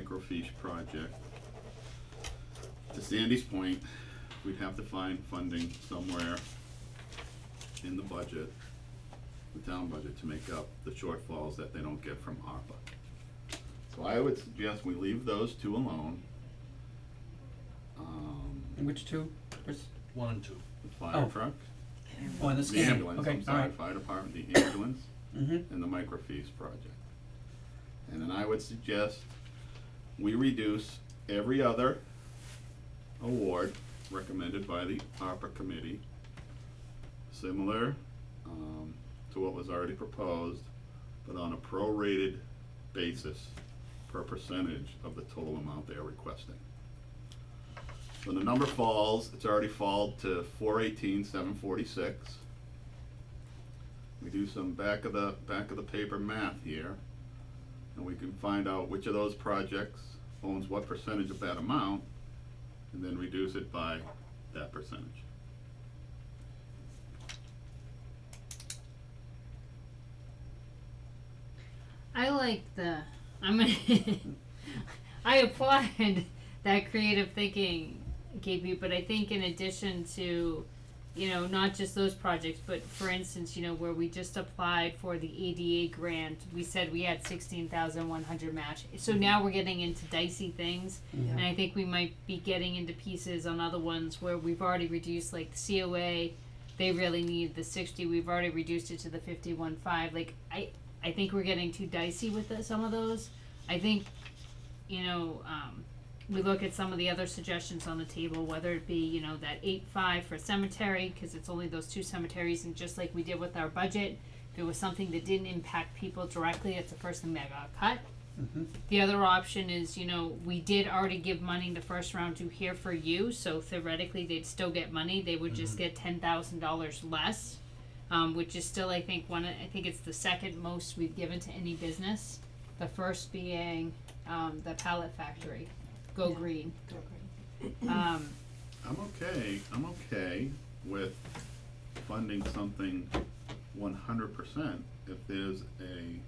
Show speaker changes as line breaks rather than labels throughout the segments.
microfiche project. To Sandy's point, we'd have to find funding somewhere in the budget, the town budget, to make up the shortfalls that they don't get from ARPA. So I would suggest we leave those two alone. Um,
And which two, Chris?
One and two.
the
Oh.
fire truck,
Oh, and the
the
scanner,
ambulance,
okay,
I'm sorry,
alright,
fire department, the ambulance,
mm-hmm,
and the microfiche project. And then I would suggest we reduce every other award recommended by the ARPA committee, similar, um, to what was already proposed, but on a prorated basis per percentage of the total amount they are requesting. When the number falls, it's already falled to four eighteen, seven forty-six. We do some back of the, back of the paper math here, and we can find out which of those projects owns what percentage of that amount, and then reduce it by that percentage.
I like the. I'm. gonna- I applaud that creative thinking, KP. But I think in addition to, you know, not just those projects, but for instance, you know, where we just applied for the ADA grant, we said we had sixteen thousand one hundred match. So now we're getting into dicey things, and I think we might be getting into pieces on other ones where we've already reduced, like the COA. They really need the sixty. We've already reduced it to the fifty-one five. Like I, I think we're getting too dicey with the, some of those. I think, you know, um, we look at some of the other suggestions on the table, whether it be, you know, that eight five for cemetery, cause it's only those two cemeteries, and just like we did with our budget, if it was something that didn't impact people directly, that's the first thing that got cut.
mm-hmm,
The other option is, you know, we did already give money the first round to Here for You, so theoretically they'd still get money. They would just get ten thousand dollars less, um, which is still, I think, one. I think it's the second most we've given to any business. The first being um, the pallet factory, Go Green. Um,
I'm okay, I'm okay with funding something one hundred percent if there's a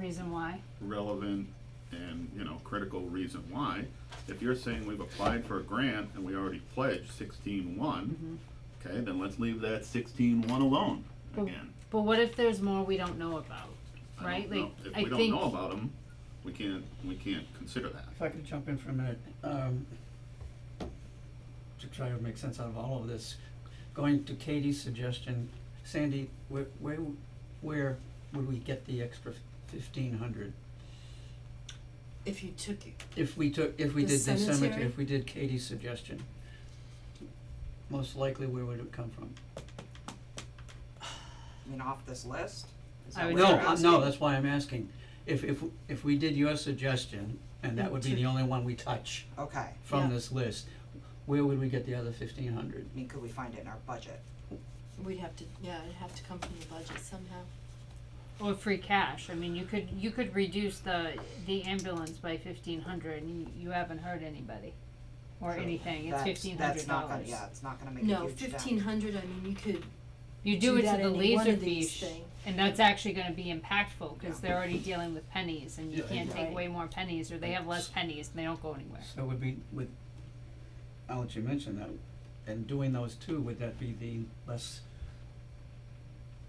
reason why?
relevant and, you know, critical reason why. If you're saying we've applied for a grant and we already pledged sixteen one, okay, then let's leave that sixteen one alone
Well,
again.
But what if there's more we don't know about?
I
Right,
don't know.
like
If
I
we don't
think
know about them, we can't, we can't consider that.
if I could jump in for a minute, um, to try to make sense out of all of this, going to Katie's suggestion, Sandy, where, where, where would we get the extra fifteen hundred?
If you took
If we took, if we
The
did the cemetery,
cemetery?
if we did Katie's suggestion, most likely where would it come from?
I mean, off this list? Is
I would
that what
No,
you're
uh,
asking?
no, that's why I'm asking. If, if, if we did your suggestion, and that would be the only one we touch
Okay, I
from
Yeah.
this list, where would we get the other fifteen hundred?
mean, could we find it in our budget?
We'd have to, yeah, it'd have to come from the budget somehow.
Or free cash, I mean, you could, you could reduce the, the ambulance by fifteen hundred and you, you haven't hurt anybody. Or
True.
anything, it's
That's-
fifteen hundred
That's not gonna,
dollars.
yeah, it's not gonna make a huge
No,
dent.
fifteen hundred, I mean, you could
You do
do
it
that
to the
in any one
laser
of these
fiche,
thing.
and that's actually gonna be impactful,
Yeah.
cause they're already dealing with pennies and you
Yeah,
can't take
Right.
way more pennies, or they have less
S-
pennies and they don't go anywhere.
So would be, would, I'll let you mention that, and doing those two, would that be the less,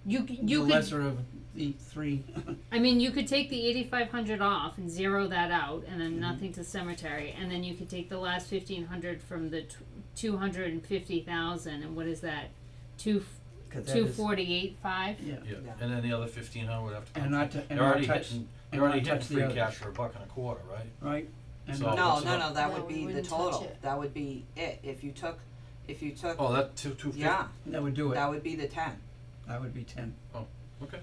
You, c-
the
you could,
lesser of the three?
I mean, you could take the eighty-five hundred off and zero that out, and then
Mhm.
nothing to cemetery, and then you could take the last fifteen hundred from the tw- two hundred and fifty thousand, and what is that? Two f-
'Cause that
Two
is-
forty-eight five?
Yeah,
Yeah,
Yeah.
and then the other fifteen hundred would have to come.
and
from-
not to, and
They're
not
already
touch,
hitting,
and
they're already
not
hitting
touch the
free
other,
cash for a buck and a quarter, right?
right? And
So-
not
No,
touch
no,
the-
no, that
No,
would
we
be the
wouldn't touch
total,
it.
that would be it, if you took, if you took,
Oh, that two, two fifty?
yeah,
That would do it,
that would be the ten.
that would be ten,
Okay.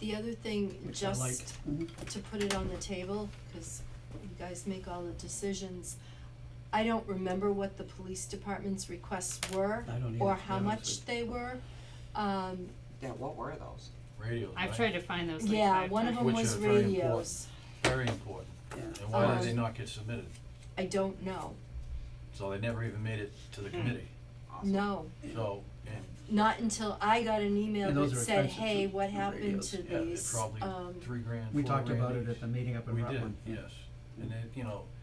The other thing,
which I like.
just
Mhm.
to put it on the table, cause you guys make all the decisions. I don't remember what the police department's requests were
I don't either,
or
to be
how
honest
much
with
they were. Um,
Yeah, what were those?
Radios,
I've
right?
tried to find those like
yeah,
five
one of
times.
them
Which
was
are very important.
radios.
Very important.
Yeah.
And why did they
Um,
not get submitted?
I don't know,
So they never even made it to the committee.
Awesome.
no,
So, and
not until I got an email
And
that
those are
said,
expensive,
hey,
the-
what
the
happened
radios.
to
yeah, they're
these,
probably
um,
three grand,
We
four
talked about
grand
it
each.
at the meeting up in
We
Rutland.
did, yes. and it, you know,